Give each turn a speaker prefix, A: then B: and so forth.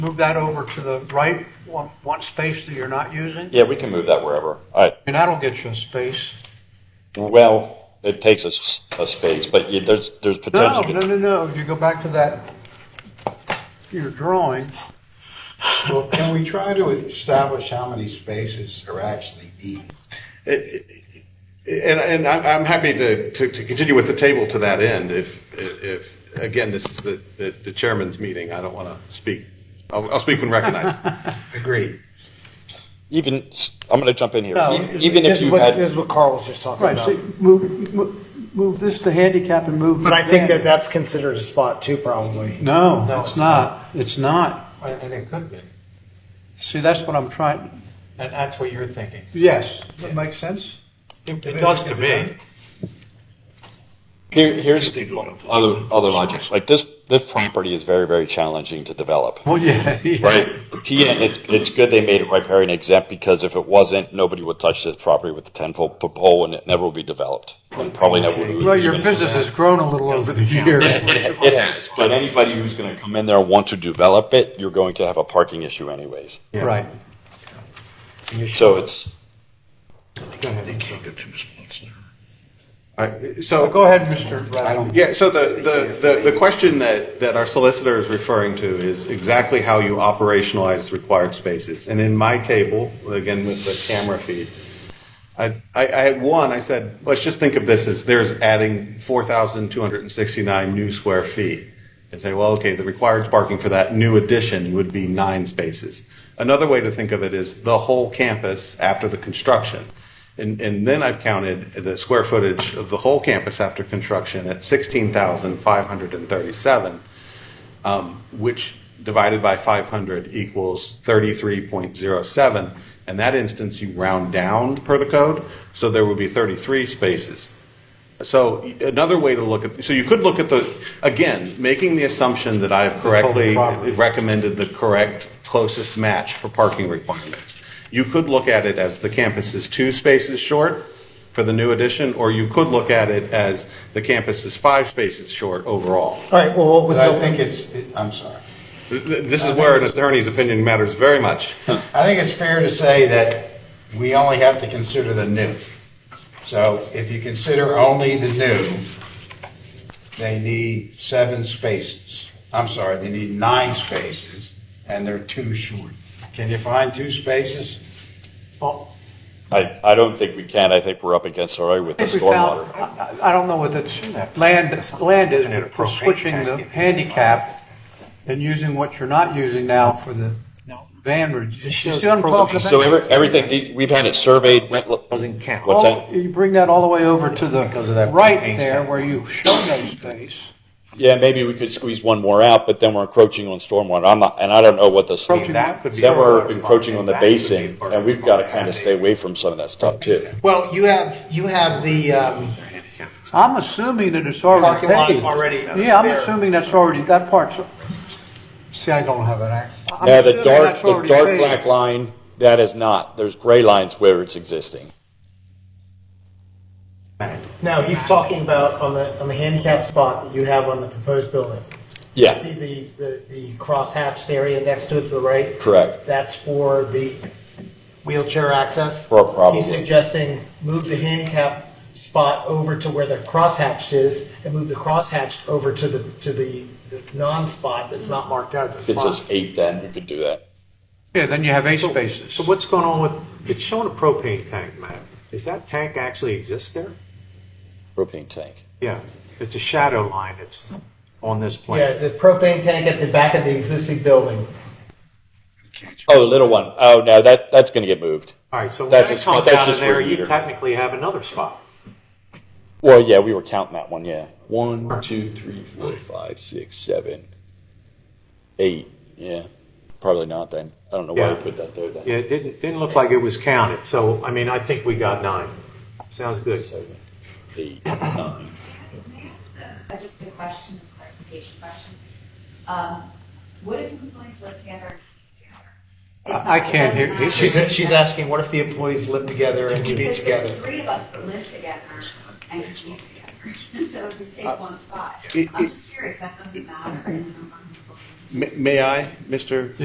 A: move that over to the right, one, one space that you're not using?
B: Yeah, we can move that wherever. All right.
A: And that'll get you a space.
B: Well, it takes us a space, but you- there's, there's
A: No,
B: potential.
A: no, no, no, if you go back to that, your drawing,
C: Well, can we try to establish how many spaces are actually needed?
D: And, and I'm I'm happy to, to, to continue with the table to that end if, if, again, this is the, the- the chairman's meeting. I don't want to speak. I'll, I'll speak when recognized.
C: Agreed.
B: Even, s- I'm going to jump in here.
A: No,
B: E- Even
E: This
B: if
E: is
B: you
E: what, this
B: had,
E: is what Carl was just talking
A: right,
E: about.
A: so move, move- move this to handicap and move.
E: But I think
A: there.
E: that that's considered a spot too, probably.
A: No,
F: No,
A: it's
F: it's
A: not, it's not.
F: And it could be.
A: See, that's what I'm trying,
F: And that's what you're thinking.
A: yes, that makes sense?
F: It it does to me.
B: here, here's other, other logic. Like this, this property is very, very challenging to develop.
A: Well, yeah.
B: Right. TN, it's, it's good they made it riparian exempt because if it wasn't, nobody would touch this property with a ten foot pole and it never would be developed. And Probably never would.
A: Well, your
B: even-
A: business has grown a little over the years.
B: It it has, but anybody who's gonna come in there and want to develop it, you're going to have a parking issue anyways.
A: Right.
B: So it's,
D: All right, So.
A: Go ahead, Mr.
C: I
A: Rath.
C: don't.
D: Yeah, so the, the, the, the question that, that our solicitor is referring to is exactly how you operationalize required spaces. And in my table, again with the camera feed, I, I, I had one, I said, let's just think of this as there's adding 4,269 new square feet. And say, well, okay, the required parking for that new addition would be nine spaces. Another way to think of it is the whole campus after the construction. And, and then I've counted the square footage of the whole campus after construction at 16,537, um, which divided by 500 equals 33.07. In that instance, you round down per the code, so there would be 33 spaces. So another way to look at, so you could look at the, again, making the assumption that I've correctly
A: property.
D: recommended the correct closest match for parking requirements. You could look at it as the campus is two spaces short for the new addition, or you could look at it as the campus is five spaces short overall.
E: All right, well, what was
C: But
E: the?
C: I think it's, it- I'm sorry.
D: Th- th- This is where an attorney's opinion matters very much.
C: I think it's fair to say that we only have to consider the new. So if you consider only the new, they need seven spaces. I'm sorry, they need nine spaces, and they're too short. Can you find two spaces?
A: Oh,
B: I, I don't think we can. I think we're up against already with the
A: I think we found,
B: stormwater.
A: I I don't know what the land, land is, but for switching the handicap and using what you're not using now for the van, route. you see what I'm talking about?
B: So every, everything, these- we've had it surveyed, went, look- what's
A: Well,
B: that?
A: you bring that all the way over to the
F: Because of that
A: right
F: propane
A: there
F: tank.
A: where you show no space.
B: Yeah, maybe we could squeeze one more out, but then we're encroaching on stormwater. I'm not, and I don't know what the.
A: Approaching what?
B: Then we're encroaching on the basin, and we've got to kind of stay away from some of that stuff too.
G: Well, you have, you have the um,
A: I'm assuming that it's
G: parking
A: already
G: lot
A: paved.
G: already
A: Yeah, I'm
G: there.
A: assuming that's already, that part's, see, I don't have an act. I'm
B: Yeah, the
A: assuming
B: dark,
A: that's
B: the
A: already
B: dark
A: paved.
B: black line, that is not. There's gray lines where it's existing.
E: No, he's talking about on the, on the handicap spot that you have on the proposed building.
B: Yeah,
E: See the, the, the crosshatched area next to it to the right?
B: correct.
E: That's for the wheelchair access.
B: For a problem.
E: He's suggesting move the handicap spot over to where the crosshatched is and move the crosshatched over to the, to the the non-spot that's not marked out as a
B: If it's
E: spot.
B: just eight, then we could do that.
A: Yeah, then you have eight spaces.
F: So what's going on with, it's showing a propane tank, Matt. Does that tank actually exist there?
B: Propane tank.
F: Yeah, it's a shadow line that's on this
E: Yeah,
F: plan.
E: the propane tank at the back of the existing building.
B: Oh, the little one. Oh, no, that, that's going to get moved.
F: All right, so when
B: That's
F: that
B: a-
F: comes
B: that's
F: out of
B: just
F: there,
B: where
F: you
B: you're-
F: technically have another spot.
B: Well, yeah, we were counting that one, yeah. One, two, three, four, five, six, seven, eight. Yeah, probably not then. I don't know why
F: Yeah.
B: we put that there then.
F: Yeah, it didn't, didn't look like it was counted, so, I mean, I think we got nine. Sounds good.
B: Seven, eight, nine.
H: Uh, Just a question, a clarification question. Um, What if who's going to live together?
A: I I can't hear, he-
H: She's- she's
G: asking, what if the employees live together and
H: Because there's three of us that live together and commute together, so it would
A: Uh,
H: take one spot.
D: it-
H: I'm
D: it-
H: just curious, that doesn't matter in the number of people.
D: May- May I, Mr.